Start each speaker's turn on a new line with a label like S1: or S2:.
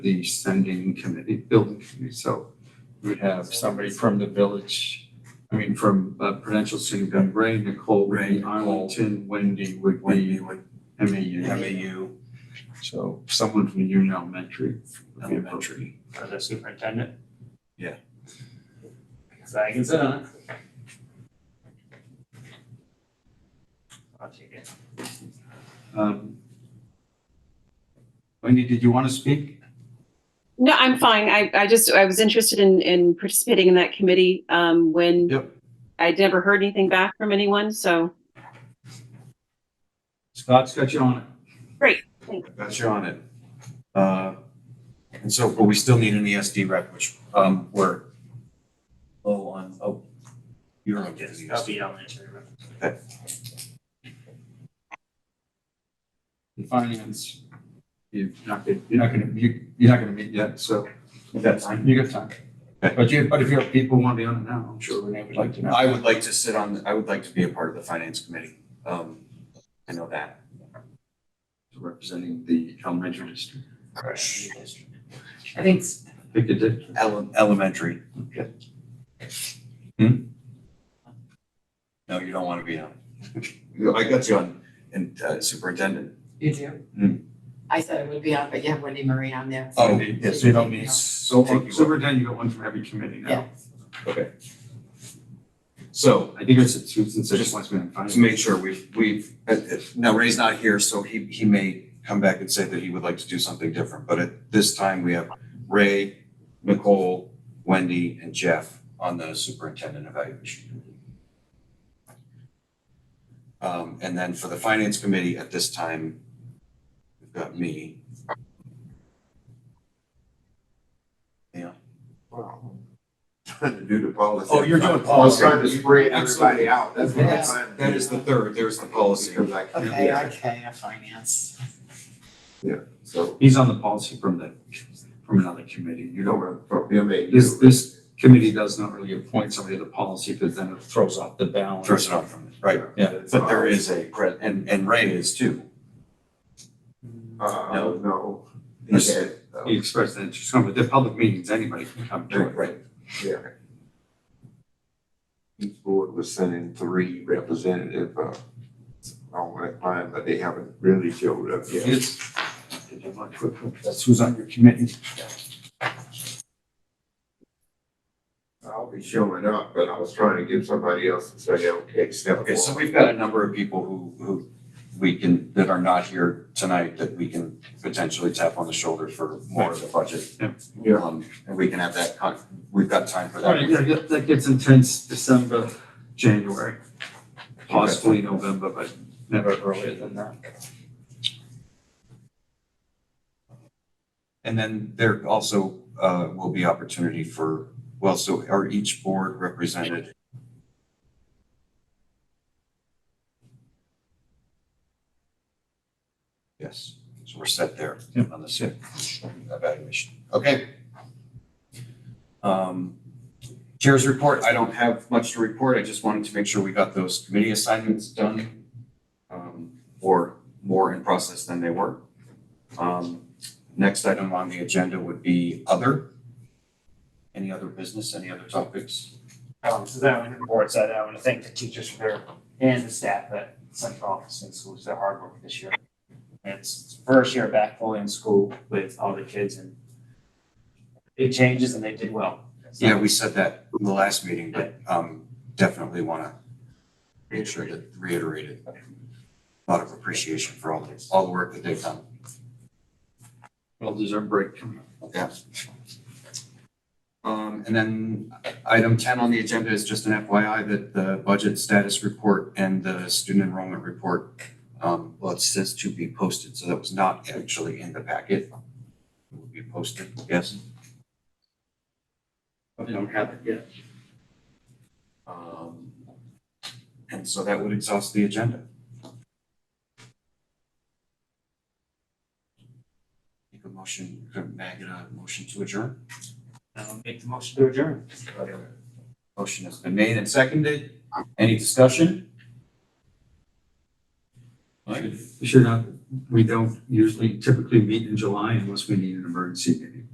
S1: the sending committee, building committee, so we would have somebody from the village, I mean, from uh, Prudential City, Ray, Nicole, Ray,
S2: Ray,
S1: Arlington, Wendy would
S2: Wendy
S1: be
S2: would have
S1: MAU.
S2: a U,
S1: So someone from Union Elementary. would be
S2: elementary.
S3: For the superintendent?
S2: Yeah.
S3: So I can sit on it. I'll take it.
S1: appropriate. Um, Wendy, did you want to speak?
S4: No, I'm fine. I, I just, I was interested in, in participating in that committee, um, when
S1: Yep.
S4: I'd never heard anything back from anyone, so
S1: Scott's got you on it.
S2: got you on it. Uh, and so, but we still need
S1: E
S2: an ESD rep, which, um, we're low on, oh, you're on
S1: E
S2: the
S3: Yes, I'll
S2: ESD.
S3: be elementary. rep.
S1: In Finance, you're not, gonna- you're not gonna, you- you're not gonna meet yet, so
S2: That's
S1: you got time. But you, but if you have people who want to be on it now, I'm sure Renee would like to know.
S2: I would like to sit on, I would like to be a part of the finance committee. Um, I know that.
S1: representing the elementary district.
S5: I think
S1: Pick a district.
S2: Ele- elementary.
S1: Okay.
S2: Hmm? No, you don't want to be on. I got you on, and uh, superintendent.
S5: you do.
S2: Hmm.
S5: I said it would be on, but you have Wendy Marie on there.
S2: Oh,
S5: yes, so you don't need-
S1: So,
S2: Take you
S1: superintendent, you got one from every committee now.
S5: Yeah.
S2: Okay. So
S1: I think it's a two since
S2: Just
S1: it wants me to find.
S2: to make sure we've, we've, uh, uh, now Ray's not here, so he, he may come back and say that he would like to do something different, but at this time, we have Ray, Nicole, Wendy, and Jeff on the superintendent evaluation. committee. Um, and then for the finance committee, at this time, we've got me.
S6: trying to do the policy.
S2: Oh, you're doing
S6: I was
S2: policy.
S6: trying to spread everybody out, that's what I'm
S5: Yes.
S6: trying to do.
S2: That is the third, there's the policy.
S6: Because I can't,
S5: Okay,
S6: yeah,
S5: okay, I finance.
S6: so,
S1: He's on the policy from the, from another committee. You
S6: you know,
S1: don't,
S6: we're from M A.
S1: this, this committee does not really appoint somebody to the policy because then it throws off the balance.
S2: Throws it off from, it, right,
S1: Yeah.
S2: but there is a, pre- and, and Ray is too.
S6: Uh,
S2: No.
S6: no. He
S2: Yes.
S6: had, uh,
S1: He expressed that interest, but they're public meetings, anybody can come to it.
S2: Right.
S6: yeah. Each board was sending three representative, uh, on that line, but they haven't really showed up yet.
S1: It's- That's who's on your committee.
S6: I'll be showing up, but I was trying to give somebody else to say, okay, step
S2: Okay, so
S6: forward.
S2: we've got a number of people who, who we can, that are not here tonight, that we can potentially tap on the shoulder for more of the budget.
S1: Yeah.
S6: Yeah.
S2: Um, And we can have that, con- we've got time for
S1: All right,
S2: that.
S1: yeah, that- that gets intense December, January, possibly November, but never earlier than that.
S2: And then there also uh, will be opportunity for, well, so are each board represented? Yes, so we're set there on the SIP evaluation. Okay. Um, Chair's report, I don't have much to report. I just wanted to make sure we got those committee assignments done um, or more in process than they were. Um, Next item on the agenda would be other. Any other business, any other topics?
S3: Um, so then on the board side, I want to thank the teachers for their, and the staff at Central Office and Schools, their hard work this year. It's first year back fully in school with all the kids and big changes and they did well. So-
S2: Yeah, we said that in the last meeting, but um definitely want to make sure to reiterate it. A Lot of appreciation for all the, all the work that they've done.
S1: Well, there's our break coming up.
S2: Yeah. Um, and then item ten on the agenda is just an FYI that the budget status report and the student enrollment report, um, well, it says to be posted, so that was not actually in the packet. It will be posted, yes.
S1: I don't have it yet.
S2: Um, and so that would exhaust the agenda. Make a motion, may I get a motion to adjourn?
S3: Um, make the motion to adjourn.
S2: Motion has been made and seconded. Any discussion?
S1: You sure not? we don't usually typically meet in July unless we need an emergency meeting.